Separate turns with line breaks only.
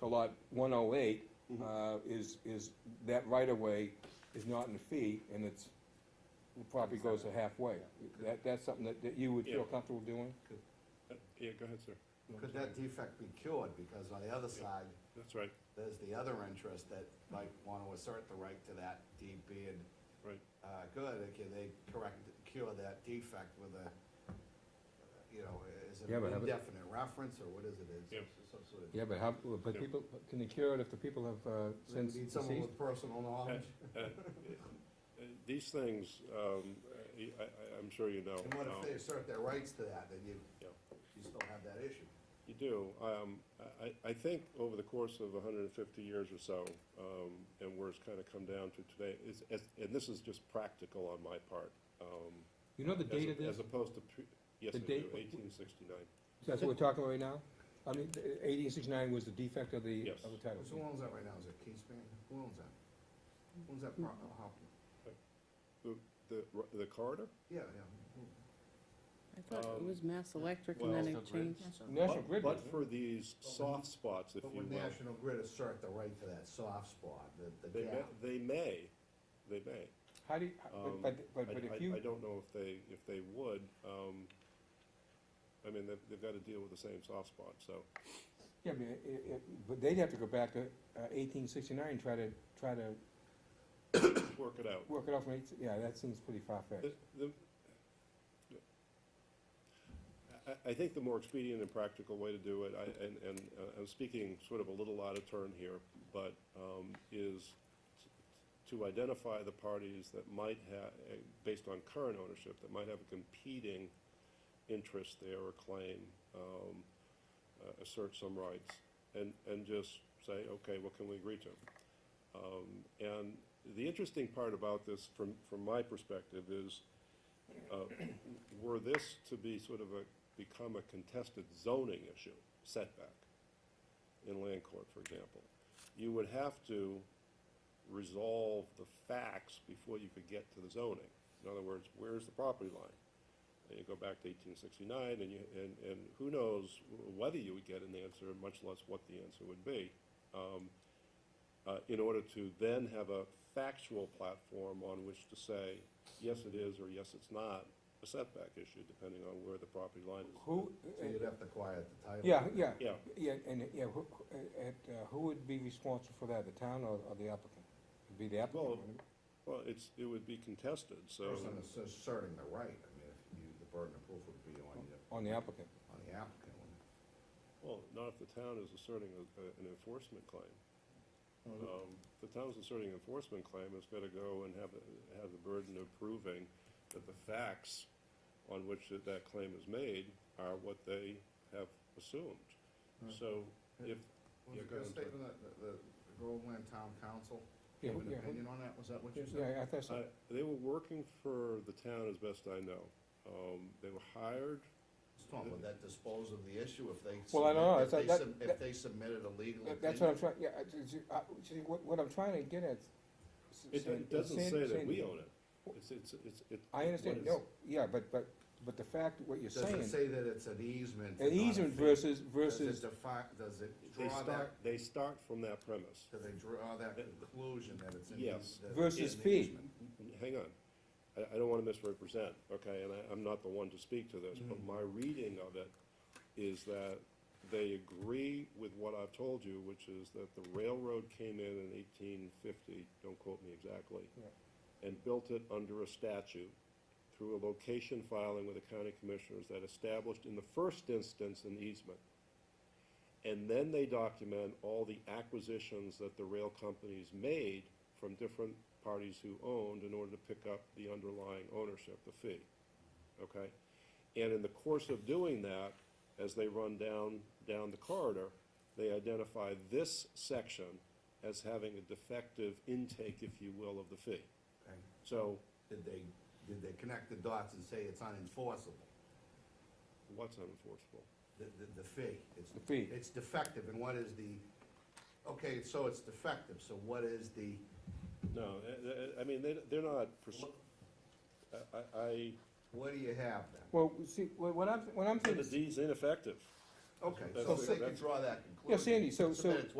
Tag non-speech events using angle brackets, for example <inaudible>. to lot one oh eight,
Mm-hmm.
uh, is, is, that right of way is not in the fee, and it's, the property goes to halfway. That, that's something that, that you would feel
Yeah.
comfortable doing?
Uh, Yeah, go ahead, sir. No,
Could
sorry.
that defect be cured? Because on the other side,
That's right,
there's the other interest that might want to assert the right to that deed being,
right.
uh, good. Can they correct, cure that defect with a, you know, is it
Yeah, but
an
have it-
indefinite reference or what is it? It's
Yeah.
some sort of-
Yeah, but how, but
Yeah.
people, can they cure it if the people have, uh,
We
since
Need someone
deceased?
with personal knowledge?
Uh, uh, These things, um, uh, I, I, I'm sure you know.
And what
um,
if they assert their rights to that, then you,
Yeah.
you still have that issue?
You do. Um, I- I, I think over the course of hundred and fifty years or so, um, and where it's kind of come down to today, is, is- and this is just practical on my part. um,
You know the
as
date
a-
of this?
As opposed to, pre- yes, I
The
do,
date-
eighteen sixty-nine.
That's what we're talking about right now? I mean, eighteen sixty-nine was the defect of the,
Yes.
of the title.
Who owns that right now? Is it Keyspan? Who owns that? Who owns that pro- how-
The, the corridor?
Yeah, yeah.
I thought it
Um,
was Mass Electric and
well-
then it changed.
National
But-
Grid
But
doesn't.
for these soft spots, if
But
you
would
will.
National Grid assert the right to that soft spot, the, the
They may,
gap?
they may, they may.
How do you,
Um,
but, but,
I,
but- but
I-
if
I
you,
don't know if they, if they would, um, I mean, they've, they've gotta deal with the same soft spot, so.
yeah, but, it- it- but they'd have to go back to uh, eighteen sixty-nine and try to, try to
just Work it out.
work it out from eight, yeah, that seems pretty far-fetched.
The- the- I, I think the more expedient and practical way to do it, I, and, and uh, I'm speaking sort of a little out of turn here, but, um, is to identify the parties that might have, based on current ownership, that might have a competing interest there or claim, um, uh, assert some rights, and, and just say, okay, what can we agree to? Um, And the interesting part about this, from, from my perspective, is uh, <clears throat> were this to be sort of a, become a contested zoning issue, setback in land court, for example, you would have to resolve the facts before you could get to the zoning. In other words, where's the property line? And you go back to eighteen sixty-nine, and you, and, and who knows whether you would get an answer, much less what the answer would be Um, uh, in order to then have a factual platform on which to say, yes, it is, or yes, it's not, a setback issue, depending on where the property line is.
Who, uh,
So you'd have to quiet the title.
yeah, yeah,
Yeah,
yeah, and, yeah, who, at, uh, who would be responsible for that, the town or, or the applicant? It'd Be the applicant,
Well,
wouldn't it?
well, it's, it would be contested, so,
Person that's asserting the right, I mean, if you, the burden of proof would be on you,
on the applicant.
on the applicant. wouldn't it?
well, not if the town is asserting a- a- an enforcement claim. Um, if The town's asserting an enforcement claim, it's got to go and have, the- have the burden of proving that the facts on which that- that claim is made are what they have assumed. So if,
Was
Yeah,
it
go
your
ahead,
statement that the, the the Groveland Town Council
Yeah,
gave
who-
an
yeah, who-
opinion on that? Was that what you said?
Yeah, I thought
Uh,
so.
They were working for the town as best I know. Um, They were hired,
Just talking, would that dispose of the issue if they?
Well, I don't
submit-
know.
if
It's like
they
that-
sub-
that-
If they submitted a legal opinion?
That- That's what I'm trying, yeah, I- I, see, what, what I'm trying to get at. s-
it
San-
it doesn't
San-
say that
San-
we own it. It's, it's, it's. it-
I understand,
what is-
no, yeah, but, but, but the fact, what you're
Does it
saying,
say that it's an easement?
an
and not a
easement
fee?
versus,
Does it
versus,
defi- does it
They
draw that,
start, they start from that premise.
do they draw that conclusion that it's an
Yes.
eas- that it's
Versus
an
fee.
easement?
Hang on. I, I don't want to misrepresent, okay, and I, I'm not the one to speak to this, but my reading of it is that they agree with what I've told you, which is that the railroad came in in eighteen fifty, don't quote me exactly,
Yeah.
and built it under a statute through a location filing with the county commissioners that established in the first instance an easement. And then they document all the acquisitions that the rail companies made from different parties who owned in order to pick up the underlying ownership, the fee. Okay? And in the course of doing that, as they run down, down the corridor, they identify this section as having a defective intake, if you will, of the fee.
Okay.
So
Did they, did they connect the dots and say it's unenforceable?
what's unenforceable?
The, the, the fee? It's-
The fee.
It's defective, and what is the, okay, so it's defective, so what is the,
No, eh, I, I mean, they, they're not, pers- I, I- I,
what do you have then?
well, see, what what I'm, what I'm
the
thinking.
deed's ineffective.
Okay, so
That's-
they can
that's-
draw that conclusion.
Yeah, Sandy, so- so-
Submit it to